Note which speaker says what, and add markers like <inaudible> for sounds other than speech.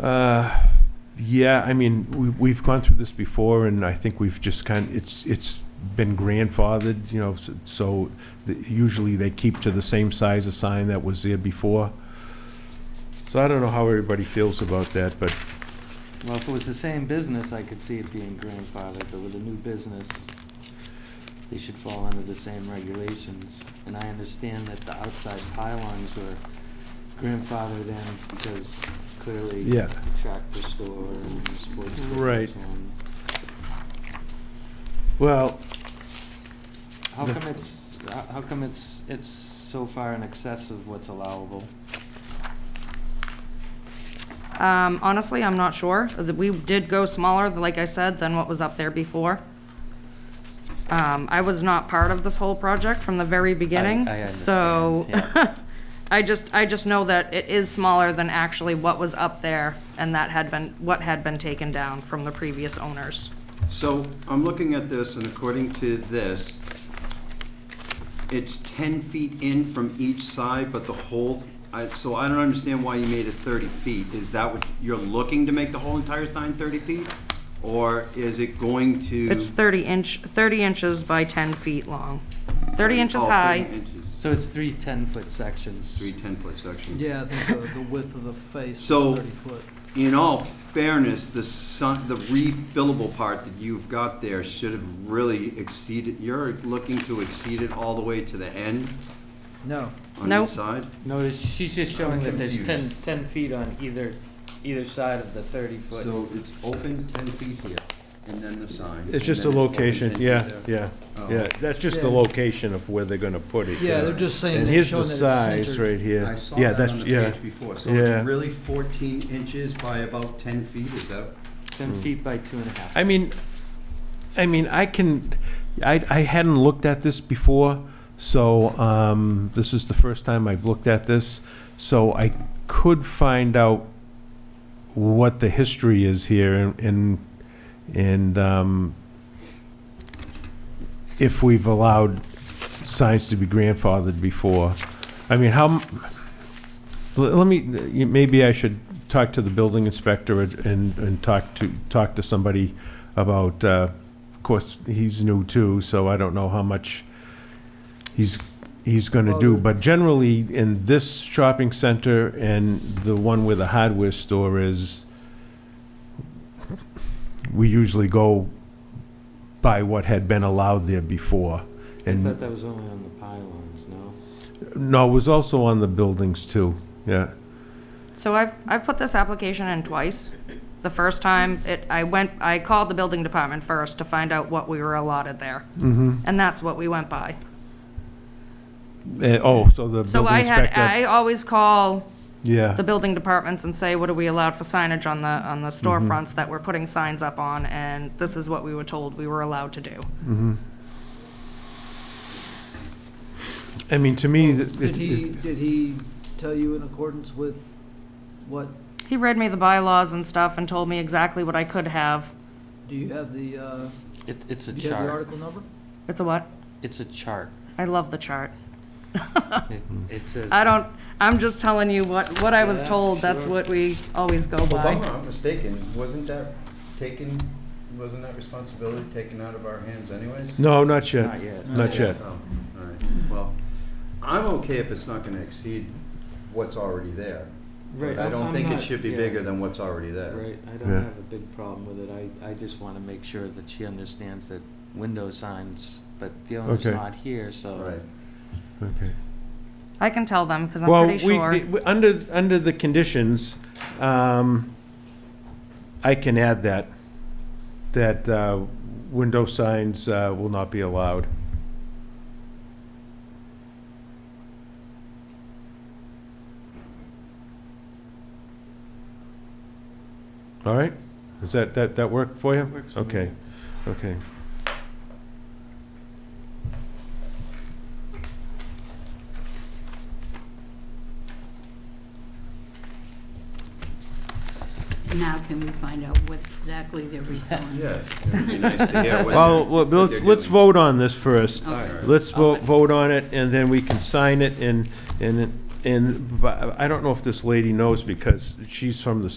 Speaker 1: Uh, Yeah, I mean, we- we've gone through this before, and I think we've just kind, it's, it's been grandfathered, you know, s- so the- usually they keep to the same size of sign that was there before. So I don't know how everybody feels about that, but
Speaker 2: Well, if it was the same business, I could see it being grandfathered, but with a new business, they should fall under the same regulations. And I understand that the outside pylons were grandfathered in because clearly
Speaker 1: Yeah.
Speaker 2: tractor store and sports store and
Speaker 1: Right.
Speaker 2: so on.
Speaker 1: Well,
Speaker 2: How
Speaker 1: The-
Speaker 2: come it's, how- how come it's, it's so far in excess of what's allowable?
Speaker 3: Um, honestly, I'm not sure. Th- We did go smaller, like I said, than what was up there before. Um, I was not part of this whole project from the very beginning,
Speaker 2: I
Speaker 3: so.
Speaker 2: understand, yeah.
Speaker 3: <laughs> I just, I just know that it is smaller than actually what was up there and that had been, what had been taken down from the previous owners.
Speaker 4: So I'm looking at this, and according to this, it's 10 feet in from each side, but the whole, I- so I don't understand why you made it 30 feet. Is that what, you're looking to make the whole entire sign 30 feet? Or is it going to?
Speaker 3: It's thirty inch, thirty inches by ten feet long, thirty inches
Speaker 4: Oh, 30
Speaker 3: high.
Speaker 4: inches.
Speaker 2: So it's three ten-foot sections.
Speaker 4: Three 10-foot sections.
Speaker 5: Yeah, I think the, the width of the face is
Speaker 4: So-
Speaker 5: thirty foot.
Speaker 4: In all fairness, the sun, the refillable part that you've got there should have really exceeded, you're looking to exceed it all the way to the end
Speaker 5: No,
Speaker 4: on
Speaker 3: Nope.
Speaker 4: each side?
Speaker 2: No, it's- she's just showing that there's ten,
Speaker 4: confused.
Speaker 2: ten feet on either, either side of the thirty-foot.
Speaker 4: So it's open ten feet here, and then the sign.
Speaker 1: it's just a location, yeah, yeah,
Speaker 4: Oh.
Speaker 1: yeah, that's just the
Speaker 5: Yeah.
Speaker 1: location of where they're gonna put it.
Speaker 5: yeah, they're just saying,
Speaker 1: And
Speaker 5: that-
Speaker 1: here's the
Speaker 5: showing that it's
Speaker 1: size
Speaker 5: centered.
Speaker 1: right here.
Speaker 4: I saw
Speaker 1: Yeah,
Speaker 4: that
Speaker 1: that's
Speaker 4: on the
Speaker 1: yeah.
Speaker 4: page before, so
Speaker 1: Yeah.
Speaker 4: it's really fourteen inches by about ten feet, is that? Hmm.
Speaker 2: Ten feet by two and a half.
Speaker 1: I mean, I mean, I can, I, I hadn't looked at this before, so, um, this is the first time I've looked at this. So I could find out what the history is here and- and, and, um, if we've allowed signs to be grandfathered before. I mean, how, m- l- let me, you- maybe I should talk to the building inspector and, and and talk to, talk to somebody about, uh, of course, he's new too, so I don't know how much he's, he's gonna do.
Speaker 5: Well, the-
Speaker 1: But generally, in this shopping center and the one where the hardware store is, we usually go by what had been allowed there before.
Speaker 2: I
Speaker 1: And-
Speaker 2: thought that was only on the pylons, no?
Speaker 1: No, it was also on the buildings too, yeah.
Speaker 3: So I've, I've put this application in twice. The first time, it, I went, I called the building department first to find out what we were allotted there. Mm-hmm. And that's what we went by.
Speaker 1: Eh, Oh, so the
Speaker 3: So
Speaker 1: building
Speaker 3: I had,
Speaker 1: inspector,
Speaker 3: I always call the
Speaker 1: yeah,
Speaker 3: building departments and say, what are we allowed for signage on the, on the
Speaker 1: Mm-hmm.
Speaker 3: storefronts that we're putting signs up on? And this is what we were told we were allowed to do.
Speaker 1: I mean, to me, th-
Speaker 5: Did
Speaker 1: it-
Speaker 5: he,
Speaker 1: it-
Speaker 5: did he tell you in accordance with what,
Speaker 3: He read me the bylaws and stuff and told me exactly what I could have.
Speaker 5: do you have the, uh,
Speaker 2: It, it's a
Speaker 5: do you have the
Speaker 2: chart.
Speaker 5: article number?
Speaker 3: It's a what?
Speaker 2: It's a
Speaker 3: <laughs>
Speaker 2: chart.
Speaker 3: I love the chart. <laughs>
Speaker 2: It,
Speaker 4: Hmm.
Speaker 2: it says.
Speaker 3: I don't, I'm just telling you what, what I was
Speaker 2: Yeah,
Speaker 3: told, that's
Speaker 2: sure.
Speaker 3: what we always go by.
Speaker 4: not mistaken, wasn't that taken, wasn't that responsibility taken out of our hands anyways?
Speaker 1: no, not yet,
Speaker 2: Not yet.
Speaker 1: not yet.
Speaker 4: Oh, all right, well, I'm okay if it's not gonna exceed what's already there.
Speaker 2: Right,
Speaker 4: I don't
Speaker 2: I'm
Speaker 4: think it
Speaker 2: not-
Speaker 4: should be
Speaker 2: yeah.
Speaker 4: bigger than what's already there.
Speaker 2: Right, I don't
Speaker 1: Yeah.
Speaker 2: have a big problem with it. I, I just wanna make sure that she understands that window signs, but the owner's
Speaker 1: Okay.
Speaker 2: not here, so.
Speaker 4: Right.
Speaker 1: Okay.
Speaker 3: I can tell them, because I'm
Speaker 1: Well,
Speaker 3: pretty
Speaker 1: we,
Speaker 3: sure.
Speaker 1: the- we- under, under the conditions, um, I can add that, that uh, window signs uh, will not be allowed. All right? Does that, that, that work for you?
Speaker 2: Works for me.
Speaker 1: Okay, okay.
Speaker 6: Now can we find out what exactly they're referring?
Speaker 4: Yes, it would be nice
Speaker 1: <laughs>
Speaker 4: to hear what.
Speaker 1: Well,
Speaker 4: they're-
Speaker 1: well,
Speaker 4: what they're
Speaker 1: let's, let's
Speaker 4: doing.
Speaker 1: vote on this first.
Speaker 4: All right.
Speaker 1: Let's vote,
Speaker 2: Okay.
Speaker 1: vote on it, and then we can sign it, and, and, and, but I don't know if this lady knows, because she's from the